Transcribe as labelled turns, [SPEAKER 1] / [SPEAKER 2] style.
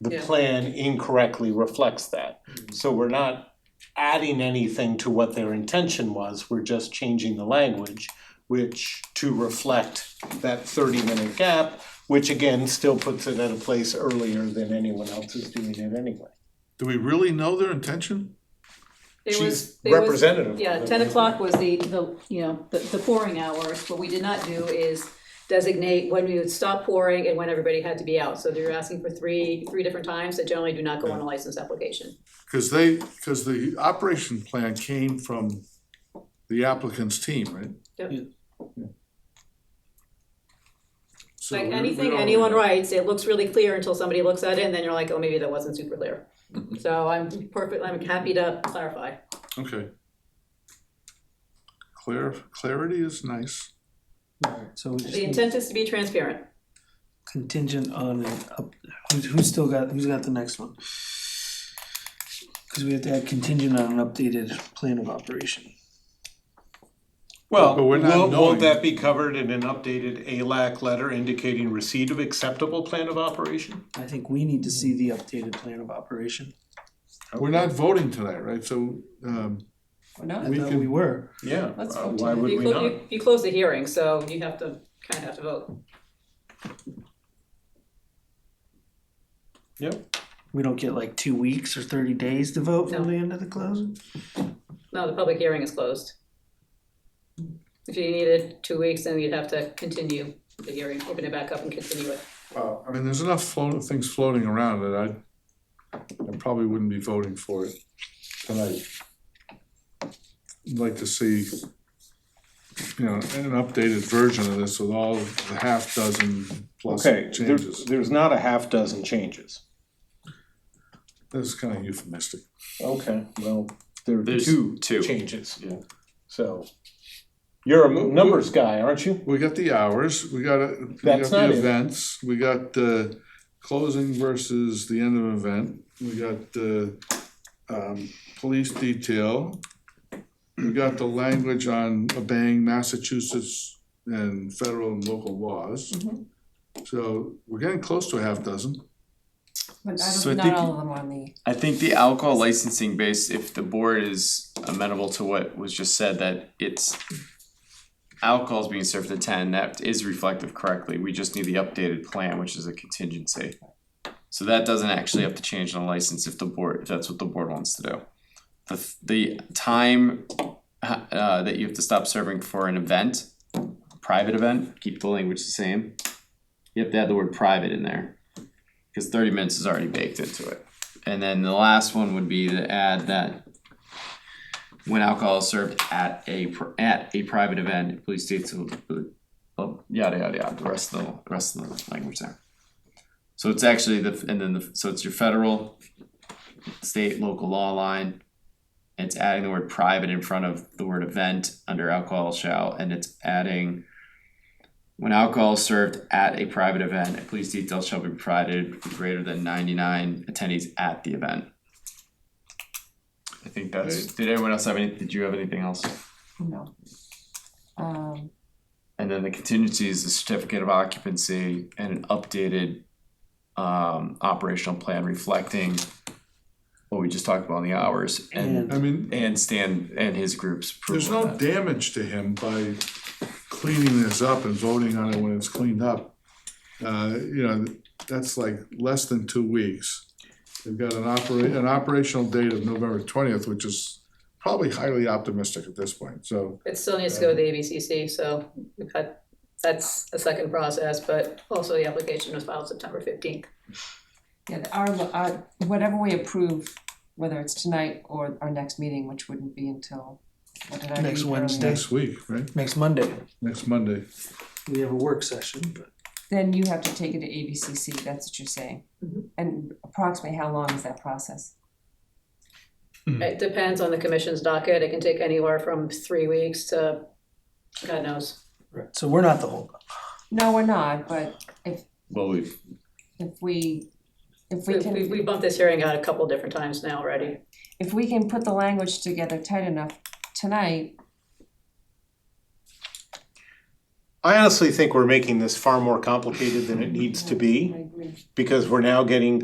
[SPEAKER 1] the
[SPEAKER 2] Yeah. Mm-hmm.
[SPEAKER 1] plan incorrectly reflects that. So we're not adding anything to what their intention was, we're just changing the language, which to reflect that thirty minute gap, which again, still puts it at a place earlier than anyone else is doing it anyway.
[SPEAKER 3] Do we really know their intention?
[SPEAKER 2] There was,
[SPEAKER 1] She's
[SPEAKER 2] there was.
[SPEAKER 1] representative.
[SPEAKER 2] Yeah, ten o'clock was the, the, you know, the, the pouring hours, what we did not do is designate when we would stop pouring and when everybody had to be out, so they're asking for three, three different times that generally do not go on a license application.
[SPEAKER 3] Cause they, cause the operation plan came from the applicant's team, right?
[SPEAKER 2] Yep.
[SPEAKER 3] So
[SPEAKER 2] Like
[SPEAKER 3] we- we
[SPEAKER 2] anything
[SPEAKER 3] don't-
[SPEAKER 2] anyone writes, it looks really clear until somebody looks at it, and then you're like, oh, maybe that wasn't super clear. So I'm perfect, I'm happy to clarify.
[SPEAKER 3] Okay. Clar- clarity is nice.
[SPEAKER 4] Alright, so we
[SPEAKER 2] The
[SPEAKER 4] just
[SPEAKER 2] intent is to be transparent.
[SPEAKER 4] contingent on an up, who's, who's still got, who's got the next one? Cause we have to have contingent on an updated plan of operation.
[SPEAKER 1] Well,
[SPEAKER 3] But we're not
[SPEAKER 1] will, will
[SPEAKER 3] knowing.
[SPEAKER 1] that be covered in an updated ALAC letter indicating receipt of acceptable plan of operation?
[SPEAKER 4] I think we need to see the updated plan of operation.
[SPEAKER 3] We're not voting tonight, right? So, um,
[SPEAKER 4] We're not.
[SPEAKER 3] We
[SPEAKER 4] I thought
[SPEAKER 3] can-
[SPEAKER 4] we were.
[SPEAKER 1] Yeah,
[SPEAKER 4] Let's
[SPEAKER 1] uh,
[SPEAKER 4] vote
[SPEAKER 1] why
[SPEAKER 4] today.
[SPEAKER 1] would
[SPEAKER 2] You
[SPEAKER 1] we
[SPEAKER 2] clo-
[SPEAKER 1] not?
[SPEAKER 2] you- You close the hearing, so you have to, kind of have to vote.
[SPEAKER 1] Yep,
[SPEAKER 4] We don't get like two weeks or thirty days to vote
[SPEAKER 2] No.
[SPEAKER 4] from the end of the closing?
[SPEAKER 2] No, the public hearing is closed. If you needed two weeks, then you'd have to continue the hearing, open it back up and continue it.
[SPEAKER 3] I mean, there's enough float, things floating around that I, I probably wouldn't be voting for it tonight. I'd like to see, you know, an updated version of this with all the half dozen plus
[SPEAKER 1] okay, there's,
[SPEAKER 3] changes.
[SPEAKER 1] there's not a half dozen changes.
[SPEAKER 3] That's kind of euphemistic.
[SPEAKER 1] Okay, well, there are
[SPEAKER 5] There's
[SPEAKER 1] two
[SPEAKER 5] two.
[SPEAKER 1] changes.
[SPEAKER 5] Yeah.
[SPEAKER 1] So, you're a mu- numbers guy, aren't you?
[SPEAKER 3] We got the hours, we got, uh, we got
[SPEAKER 1] That's
[SPEAKER 3] the
[SPEAKER 1] not it.
[SPEAKER 3] events, we got the closing versus the end of an event, we got the um police detail. We got the language on obeying Massachusetts and federal and local laws.
[SPEAKER 1] Mm-hmm.
[SPEAKER 3] So we're getting close to a half dozen.
[SPEAKER 6] But I
[SPEAKER 5] So I
[SPEAKER 6] don't, not
[SPEAKER 5] think-
[SPEAKER 6] all of them are on the,
[SPEAKER 5] I think the alcohol licensing base, if the board is amenable to what was just said, that it's alcohol's being served at ten, that is reflective correctly, we just need the updated plan, which is a contingency. So that doesn't actually have to change on a license if the board, if that's what the board wants to do. The the time uh that you have to stop serving for an event, private event, keep the language the same. You have to add the word private in there, cause thirty minutes is already baked into it. And then the last one would be to add that when alcohol is served at a pr- at a private event, police states will well, Oh, yada yada yada. The rest of the the rest of the language there. So it's actually the and then the so it's your federal, state, local law line. and It's adding the word private in front of the word event under alcohol shall, and it's adding when alcohol is served at a private event, a police detail shall be provided with greater than ninety-nine attendees at the event. I think that's, did anyone else have any, did you have anything else?
[SPEAKER 6] no. Um,
[SPEAKER 5] And then the contingency is the certificate of occupancy and an updated um operational plan reflecting what we just talked about in the hours and
[SPEAKER 3] I mean,
[SPEAKER 5] and Stan and his group's
[SPEAKER 3] there's
[SPEAKER 5] approval. of
[SPEAKER 3] no
[SPEAKER 5] that.
[SPEAKER 3] damage to him by cleaning this up and voting on it when it's cleaned up. Uh, you know, that's like less than two weeks. They've got an opera, an operational date of November twentieth, which is probably highly optimistic at this point, so.
[SPEAKER 2] It still needs to go to the ABCC, so we've had, that's a second process, but also the application was filed September fifteenth.
[SPEAKER 6] yeah, our, our, whatever we approve, whether it's tonight or our next meeting, which wouldn't be until, what did I read
[SPEAKER 4] Next
[SPEAKER 6] earlier?
[SPEAKER 4] Wednesday.
[SPEAKER 3] Next week, right?
[SPEAKER 4] Next Monday,
[SPEAKER 3] Next Monday.
[SPEAKER 4] we have a work session, but
[SPEAKER 6] Then you have to take it to ABCC, that's what you're saying.
[SPEAKER 2] Mhm.
[SPEAKER 6] And approximately how long is that process?
[SPEAKER 2] It depends on the commission's docket, it can take anywhere from three weeks to, God knows.
[SPEAKER 4] Right, so we're not the holdup.
[SPEAKER 6] No, we're not, but
[SPEAKER 5] Well, we've
[SPEAKER 6] if we, if we
[SPEAKER 2] We,
[SPEAKER 6] can.
[SPEAKER 2] we we bumped this hearing out a couple different times now already.
[SPEAKER 6] if we can put the language together tight enough tonight,
[SPEAKER 1] I honestly think we're making this far more complicated than it needs to be,
[SPEAKER 6] I agree.
[SPEAKER 1] because we're now getting